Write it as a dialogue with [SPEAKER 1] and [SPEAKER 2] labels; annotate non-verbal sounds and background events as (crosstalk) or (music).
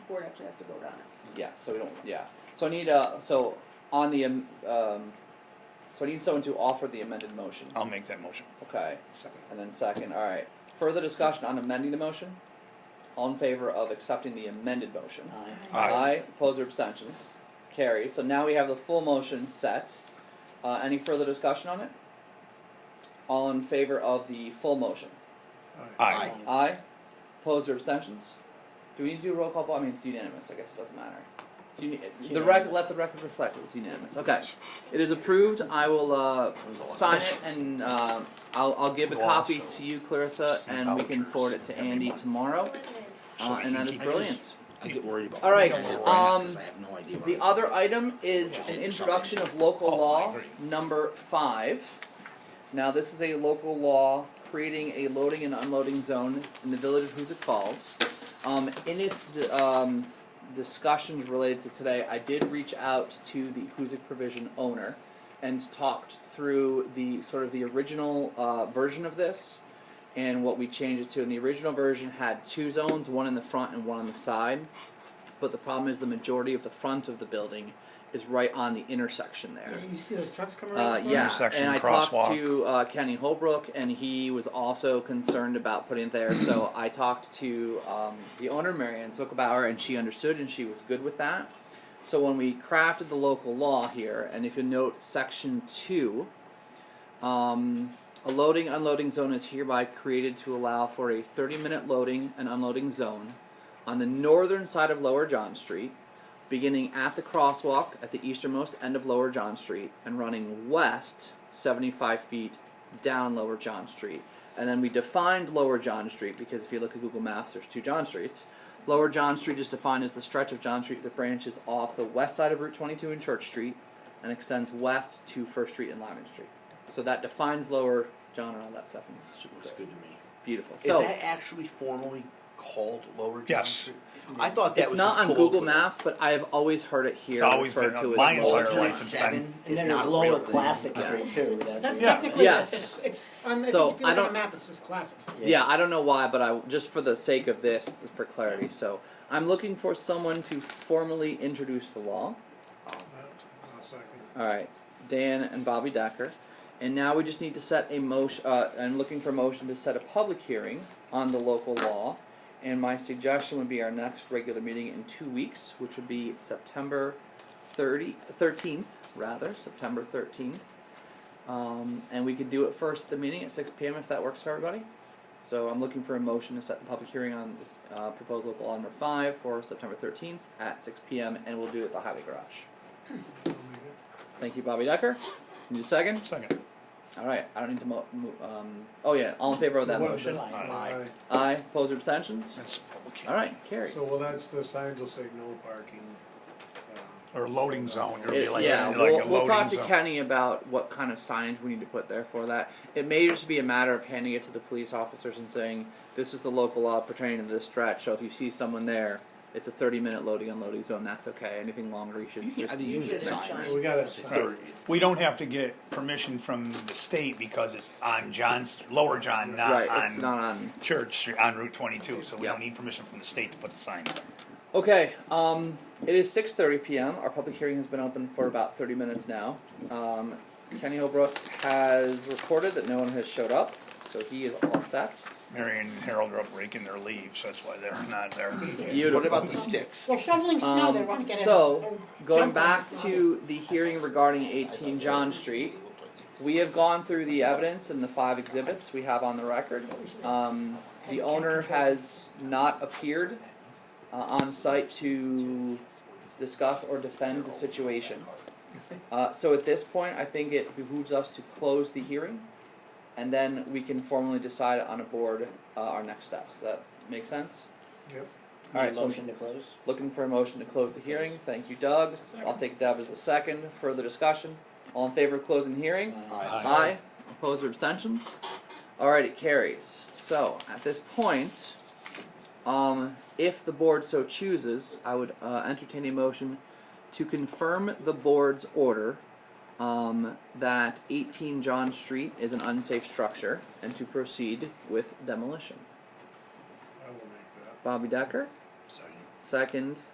[SPEAKER 1] board actually has to vote on it.
[SPEAKER 2] Yeah, so we don't, yeah, so I need, uh, so on the, um, um, so I need someone to offer the amended motion,
[SPEAKER 3] I'll make that motion.
[SPEAKER 2] okay,
[SPEAKER 3] Oh. Second.
[SPEAKER 2] and then second, alright. Further discussion on amending the motion, all in favor of accepting the amended motion?
[SPEAKER 3] Aye.
[SPEAKER 2] Aye, opposed or abstentions, carried, so now we have the full motion set, uh, any further discussion on it? All in favor of the full motion?
[SPEAKER 3] Aye.
[SPEAKER 2] Aye. Opposed or abstentions? Do we need to do a roll call vote? I mean, it's unanimous. I guess it doesn't matter. It's uni- the rec- let the record reflect it was unanimous. Okay. It is approved. I will uh, sign it and um I'll, I'll give a copy to you, Clarissa, and we can forward it to Andy tomorrow. Uh, and that is brilliant.
[SPEAKER 4] I get worried about.
[SPEAKER 2] All right,
[SPEAKER 4] things like that, 'cause
[SPEAKER 2] um,
[SPEAKER 4] I have no idea. what
[SPEAKER 2] The
[SPEAKER 4] I'm-
[SPEAKER 2] other item is an introduction of local law number five. Now, this is a local law creating a loading and unloading zone in the village of Hoosick Falls. Um, in its um, discussions related to today, I did reach out to the Hoosick Provision owner and talked through the sort of the original uh, version of this and what we changed it to. And the original version had two zones, one in the front and one on the side. But the problem is the majority of the front of the building is right on the intersection there.
[SPEAKER 5] You see those trucks coming around?
[SPEAKER 2] Uh,
[SPEAKER 5] the corner?
[SPEAKER 2] yeah,
[SPEAKER 3] Intersection,
[SPEAKER 2] and I talked
[SPEAKER 3] crosswalk.
[SPEAKER 2] to uh, Kenny Holbrook, and he was also concerned about putting it there. so I talked to um, the owner, Marianne Zuckerbauer, and she understood, and she was good with that. So when we crafted the local law here, and if you note section two, um, a loading unloading zone is hereby created to allow for a 30 minute loading and unloading zone on the northern side of Lower John Street, beginning at the crosswalk at the easternmost end of Lower John Street and running west 75 feet down Lower John Street. And then we defined Lower John Street because if you look at Google Maps, there's two John Streets. Lower John Street is defined as the stretch of John Street that branches off the west side of Route 22 and Church Street and extends west to First Street and Lyman Street. So that defines Lower John and all that stuff. and It's
[SPEAKER 4] Looks good to me.
[SPEAKER 2] beautiful.
[SPEAKER 4] Is
[SPEAKER 2] So
[SPEAKER 4] that actually formally called Lower John
[SPEAKER 3] Yes.
[SPEAKER 4] Street? I thought that
[SPEAKER 2] it's
[SPEAKER 4] was
[SPEAKER 2] not
[SPEAKER 4] just
[SPEAKER 2] on
[SPEAKER 4] colloquial.
[SPEAKER 2] Google Maps, but I have always heard it here
[SPEAKER 3] It's always
[SPEAKER 2] referred
[SPEAKER 3] been
[SPEAKER 2] to
[SPEAKER 3] on
[SPEAKER 2] as
[SPEAKER 3] my
[SPEAKER 2] Lower
[SPEAKER 4] Lower
[SPEAKER 3] entire
[SPEAKER 2] John.
[SPEAKER 3] life.
[SPEAKER 4] John
[SPEAKER 3] it's
[SPEAKER 4] Seven
[SPEAKER 5] And
[SPEAKER 4] is
[SPEAKER 5] then there's
[SPEAKER 4] not a real
[SPEAKER 5] Lower
[SPEAKER 4] thing.
[SPEAKER 5] Classic
[SPEAKER 2] Yeah.
[SPEAKER 5] Street too. that-
[SPEAKER 1] That's
[SPEAKER 3] Yeah.
[SPEAKER 1] technically,
[SPEAKER 2] Yes.
[SPEAKER 1] it's,
[SPEAKER 5] It's, on, I
[SPEAKER 2] So,
[SPEAKER 5] think if you
[SPEAKER 2] I
[SPEAKER 5] look on
[SPEAKER 2] don't-
[SPEAKER 5] a map, it's just classic. Street.
[SPEAKER 2] Yeah, I don't know why, but I just for the sake of this, for clarity. So I'm looking for someone to formally introduce the law. All right, Dan and Bobby Decker, and now we just need to set a motion. Uh, I'm looking for a motion to set a public hearing on the local law, and my suggestion would be our next regular meeting in two weeks, which would be September 30, 13th, rather September 13th. Um, and we could do it first at the meeting at 6 p.m. if that works for everybody. So I'm looking for a motion to set the public hearing on this uh, proposed local law number five for September 13th at 6 p.m. and we'll do it at the highway garage. Thank you, Bobby Decker. Need a second?
[SPEAKER 3] Second.
[SPEAKER 2] All right. I don't need to mo- mo- um. Oh yeah. All in favor of that
[SPEAKER 6] What-
[SPEAKER 2] motion?
[SPEAKER 5] July.
[SPEAKER 4] Aye.
[SPEAKER 2] Aye. Opposed or abstentions?
[SPEAKER 3] That's public
[SPEAKER 2] All
[SPEAKER 3] hearing.
[SPEAKER 2] right. Carries.
[SPEAKER 6] So, well, that's the signs will say no parking. um,
[SPEAKER 3] Or loading zone, or
[SPEAKER 2] It-
[SPEAKER 3] be like,
[SPEAKER 2] yeah,
[SPEAKER 3] like
[SPEAKER 2] we'll,
[SPEAKER 3] a
[SPEAKER 2] we'll talk
[SPEAKER 3] loading
[SPEAKER 2] to
[SPEAKER 3] zone.
[SPEAKER 2] Kenny about what kind of signage we need to put there for that. It may just be a matter of handing it to the police officers and saying, "This is the local law pertaining to this stretch. So if you see someone there, it's a 30-minute loading unloading zone. That's okay. Anything longer, you should."
[SPEAKER 4] You can
[SPEAKER 2] just
[SPEAKER 4] have the unit
[SPEAKER 1] it's not
[SPEAKER 4] signs.
[SPEAKER 1] shiny.
[SPEAKER 6] We got a
[SPEAKER 4] It's a
[SPEAKER 6] sign.
[SPEAKER 4] third.
[SPEAKER 3] We don't have to get permission from the state because it's on John's, Lower John, not
[SPEAKER 2] right. it's not
[SPEAKER 3] on
[SPEAKER 2] on.
[SPEAKER 3] Church Street, on Route twenty-two, so we
[SPEAKER 2] Yeah.
[SPEAKER 3] don't need permission from the state to put the sign up.
[SPEAKER 2] Okay, um, it is 6.30 p.m. Our public hearing has been open for about 30 minutes now. Um, Kenny Holbrook has reported that no one has showed up, so he is all set.
[SPEAKER 3] Mary and Harold are up raking their leaves, that's why they're
[SPEAKER 2] (laughs)
[SPEAKER 3] not there.
[SPEAKER 2] Beautiful.
[SPEAKER 4] What about the sticks?
[SPEAKER 5] They're shoveling snow. They want to get it.
[SPEAKER 2] so,
[SPEAKER 5] They're
[SPEAKER 2] going
[SPEAKER 5] jumping.
[SPEAKER 2] back to the hearing regarding 18 John Street, we have gone through the evidence and the five exhibits we have on the record. Um, the owner has not appeared uh, on site to discuss or defend the situation. Uh, so at this point, I think it behooves us to close the hearing, and then we can formally decide on a board uh, our next steps. Does that make sense?
[SPEAKER 6] Yep.
[SPEAKER 2] All right. So
[SPEAKER 5] Motion to close.
[SPEAKER 2] looking for a motion to close the hearing. Thank you, Doug. I'll take Deb as a second. Further discussion. All in favor of closing the hearing?
[SPEAKER 4] Aye.
[SPEAKER 2] Aye. Opposed or abstentions? Alright, it carries. So, at this point, um, if the board so chooses, I would uh, entertain a motion to confirm the board's order um, that 18 John Street is an unsafe structure and to proceed with demolition.
[SPEAKER 6] I will make that.
[SPEAKER 2] Bobby Decker,
[SPEAKER 4] Second.
[SPEAKER 2] Second.